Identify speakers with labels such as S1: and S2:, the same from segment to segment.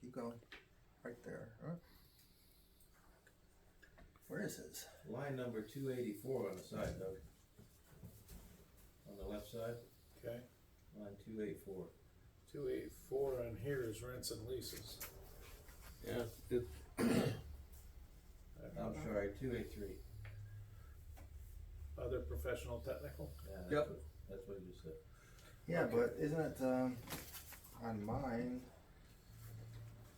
S1: keep going, right there, huh? Where is this?
S2: Line number two eighty-four on the side, Doug. On the left side,
S3: Okay,
S2: line two eighty-four.
S3: two eight four on here is rents and leases.
S4: Yeah, it,
S2: I'm sorry, two eighty-three.
S3: Other professional technical,
S4: Yep.
S2: That's what you said.
S1: Yeah, but isn't it, um, on mine,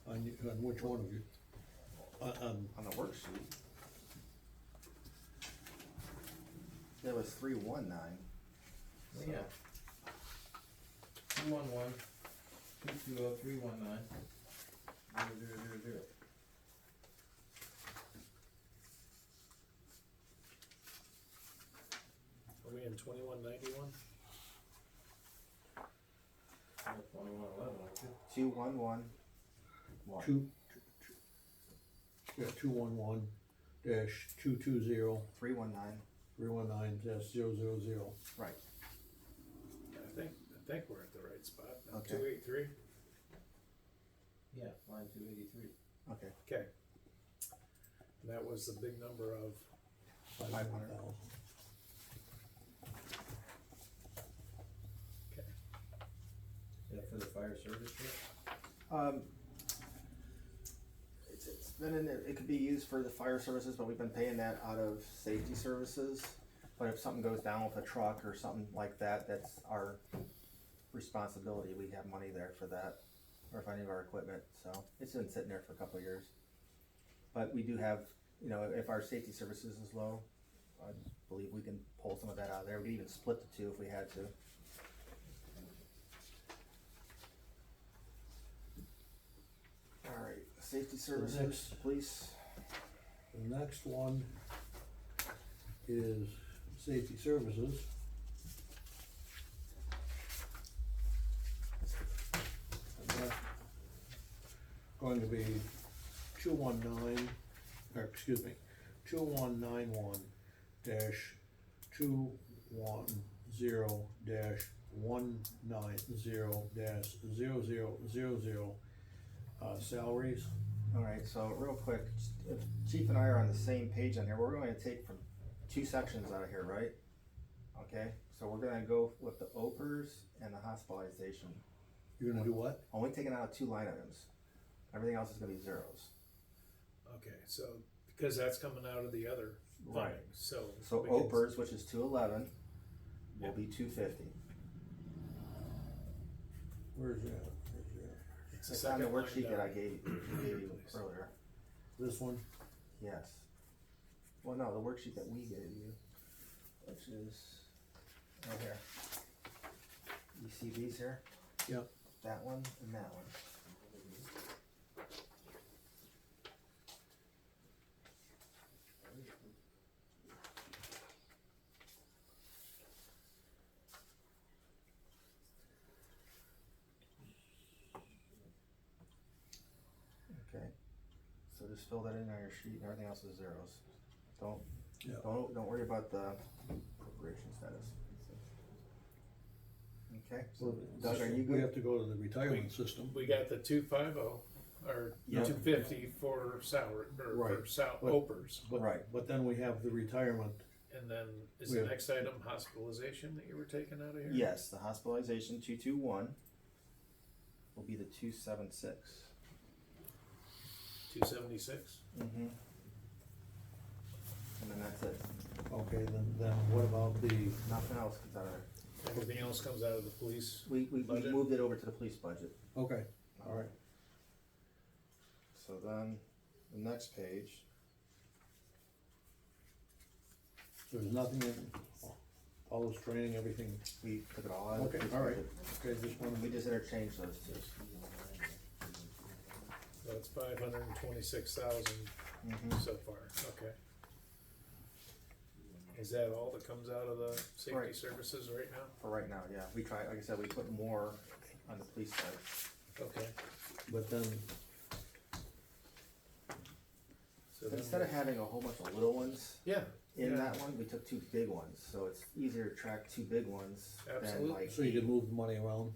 S4: on, you- on which one of you? On, on,
S1: on the worksheet? It was three one nine.
S2: Well, Yeah. Two one one, two two oh, three one nine, zero zero zero zero.
S3: are we in twenty-one ninety-one?
S2: That's twenty-one eleven, I think.
S1: Two one one. One.
S4: two, two- two- yeah, two one one dash two two zero,
S1: Three one nine,
S4: three one nine dash zero zero zero.
S1: right,
S3: I think, I think we're at the right spot,
S1: Okay.
S3: two eight three,
S2: Yeah, line two eighty-three.
S1: okay,
S3: okay. And That was the big number of,
S1: Five hundred.
S3: okay,
S2: Is that for the fire service truck?
S1: um. It's, it's been in there, it could be used for the fire services, but we've been paying that out of safety services. But if something goes down with a truck or something like that, that's our responsibility, we have money there for that, or if any of our equipment, so, it's been sitting there for a couple of years. But we do have, you know, if our safety services is low, I believe we can pull some of that out of there, we could even split the two if we had to. Alright, safety services,
S4: next-
S1: police,
S4: The next one is safety services. And that's Going to be two one nine, or excuse me, two one nine one dash two one zero dash one nine zero dash zero zero zero zero, uh, salaries.
S1: All right, so real quick, if Chief and I are on the same page on here, we're going to take from two sections out of here, right? Okay, so we're gonna go with the opers and the hospitalization,
S4: You're gonna do what?
S1: only taking out two line items. Everything else is gonna be zeros.
S3: okay, so, because that's coming out of the other
S1: Right.
S3: funding, so.
S1: So
S3: we can-
S1: opers, which is two eleven, will be two fifty.
S4: Where's that? Where's that?
S3: It's the
S1: It's on the
S3: second line
S1: worksheet that I
S3: down.
S1: gave, gave you earlier,
S4: This one?
S1: yes. Well, no, the worksheet that we gave you, which is, right here. You see these here?
S4: Yep.
S1: That one and that one. Okay, so just fill that in on your sheet and everything else is zeros. Don't,
S4: Yeah.
S1: don't, don't worry about the appropriation status. Okay, so Doug, are you
S4: We
S1: good?
S4: have to go to the retirement system.
S3: We got the two five oh, or
S4: Yeah.
S3: two fifty for salary, or for
S4: Right.
S3: sal,
S4: But-
S3: opers.
S4: but-
S1: Right.
S4: But then we have the retirement,
S3: And then, is
S4: We
S3: the
S4: have-
S3: next item hospitalization that you were taking out of here?
S1: Yes, the hospitalization two two one will be the two seven six.
S3: Two seventy-six?
S1: Mm-hmm. And then that's it,
S4: okay, then, then what about the,
S1: nothing else comes out of there.
S3: Everything else comes out of the police?
S1: We, we, we
S3: Budget?
S1: moved it over to the police budget.
S4: okay, all right.
S1: So then, the next page,
S4: So There's nothing in, all this training, everything,
S1: we took it all out of the
S4: okay,
S1: police
S4: all right,
S1: budget.
S4: okay, just wanted
S1: We
S4: to,
S1: just interchanged those two.
S3: That's five hundred and twenty-six thousand
S1: Mhm.
S3: so far, okay. Is that all that comes out of the safety
S1: Right.
S3: services right now?
S1: For right now, yeah, we tried, like I said, we put more on the police side.
S3: Okay.
S4: but then,
S3: So then
S1: Instead of having a whole bunch of little ones
S3: Yeah.
S1: in
S3: yeah,
S1: that one, we took two big ones, so it's easier to track two big ones than
S3: Absolutely.
S1: like.
S4: so you can move the money around.